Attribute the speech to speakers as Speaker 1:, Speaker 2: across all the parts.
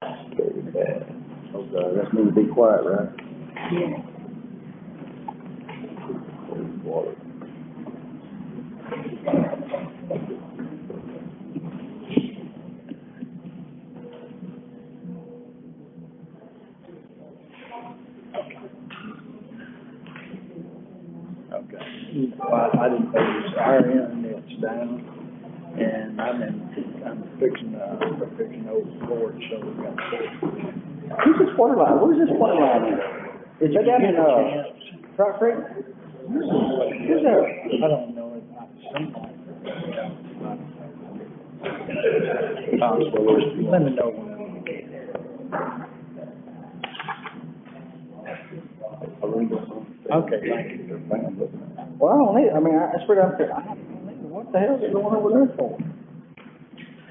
Speaker 1: Carried that.
Speaker 2: Okay, that's me to be quiet, right?
Speaker 1: Water.
Speaker 2: Okay.
Speaker 3: Well, I didn't know it was our internet's down, and I'm in, I'm fixing, uh, we're fixing old porch, so we got.
Speaker 2: Who's this water line, where's this water line at? Is that down in, uh, Rock Creek? Where's that?
Speaker 3: I don't know, it might seem like. Um, Let me know when.
Speaker 1: I really don't know.
Speaker 3: Okay, thank you.
Speaker 1: They're fine, but-
Speaker 2: Well, I don't need, I mean, I, that's where I'm, I don't need, what the hell's it going over there for?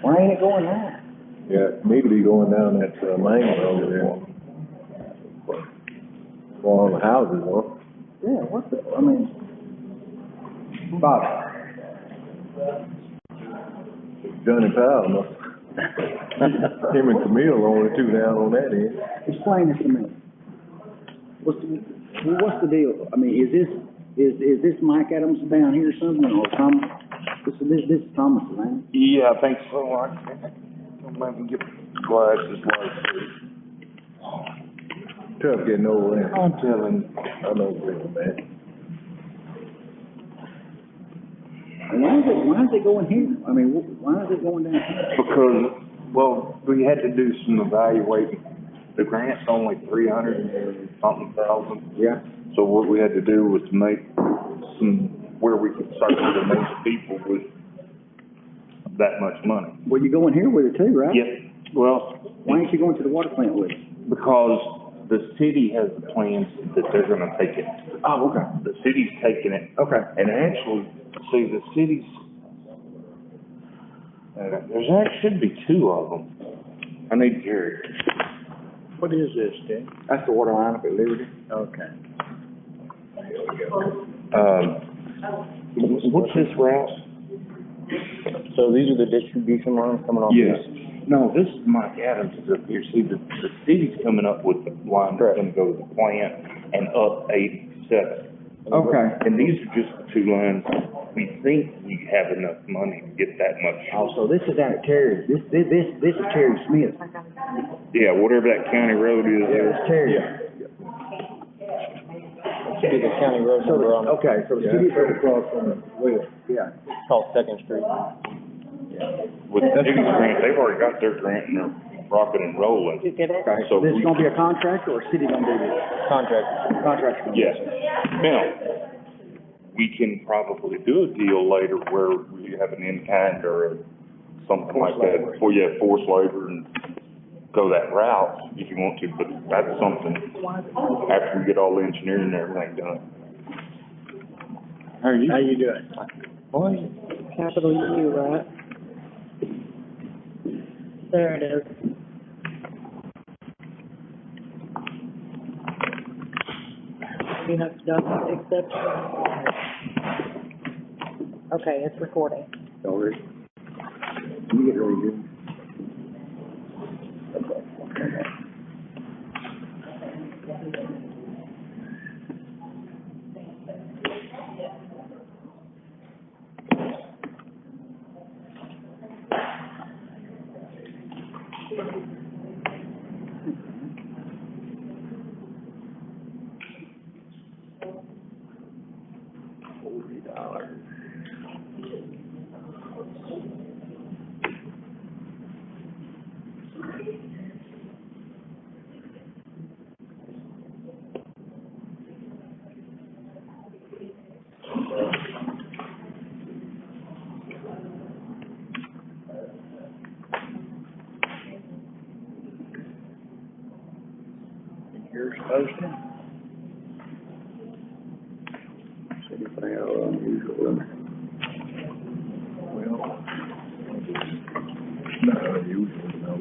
Speaker 2: Why ain't it going there?
Speaker 1: Yeah, it need to be going down that uh, main road there. Going on the houses, huh?
Speaker 2: Yeah, what the, I mean, Bob,
Speaker 1: Johnny Powell must. Him and Camille are the two down on that end.
Speaker 2: explain this to me. What's, the- well, what's the deal? I mean, is this, is, is this Mike Adams down here or something, or Tom, this, this, this is Thomas, man?
Speaker 4: Yeah, I think so, I can, let me get glasses, like,
Speaker 1: Tough getting over there. I'm telling. I know, man.
Speaker 2: And why is it, why is it going here? I mean, wh- why is it going down here?
Speaker 4: because, well, we had to do some evaluating. The grant's only three hundred and something thousand,
Speaker 2: Yeah.
Speaker 4: so what we had to do was to make some, where we could serve the most people with that much money.
Speaker 2: Well, you're going here with it too, right?
Speaker 4: Yes, well,
Speaker 2: Why ain't you going to the water plant with it?
Speaker 4: because the city has the plans that they're gonna take it.
Speaker 2: Oh, okay.
Speaker 4: The city's taking it
Speaker 2: Okay.
Speaker 4: And actually, see, the cities, uh, there's, there should be two of them. I need Jerry.
Speaker 3: What is this, Dan?
Speaker 2: That's the water line up at Liberty?
Speaker 3: Okay.
Speaker 4: Um, what's this route?
Speaker 5: So these are the distribution lines coming off?
Speaker 4: Yes.
Speaker 5: these?
Speaker 4: No, this is Mike Adams is up here. See, the, the city's coming up with the line that's
Speaker 5: Correct.
Speaker 4: gonna go to the plant and up eighty-seven.
Speaker 3: Okay.
Speaker 4: And these are just the two lines. We think we have enough money to get that much.
Speaker 2: Oh, so this is out of Terry, this, this, this, this is Terry Smith.
Speaker 4: Yeah, whatever that county road is.
Speaker 2: It's Terry.
Speaker 5: Be the county road
Speaker 2: So,
Speaker 5: number
Speaker 2: the-
Speaker 5: on, it.
Speaker 2: okay, so the
Speaker 1: Yeah.
Speaker 2: city's right across from the well, yeah.
Speaker 5: it's called Second Street.
Speaker 4: With the city's grant, they've already got their grant and they're rocking and rolling.
Speaker 2: Okay,
Speaker 4: So
Speaker 2: this
Speaker 4: we-
Speaker 2: is gonna be a contractor or city gonna do this?
Speaker 5: Contractor.
Speaker 2: Contractor. gonna do
Speaker 4: Yes.
Speaker 2: this?
Speaker 4: Now, we can probably do a deal later where we have an in-kind or something like that. Well, yeah, forced labor and go that route if you want to, but that's something after we get all the engineering and everything done.
Speaker 3: How you doing?
Speaker 5: What?
Speaker 6: capital U, right? There it is. You have done except. Okay, it's recording.
Speaker 2: All right. You get ready, dude.
Speaker 3: You're supposed to.
Speaker 2: Anything out of unusual in there?
Speaker 1: Well, not unusual, no.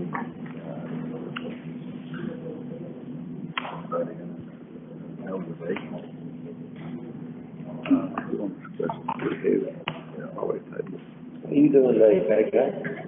Speaker 1: But, uh, elevation. Uh, we don't discuss it too heavy. Yeah, always had this.
Speaker 2: How you doing today, Pat?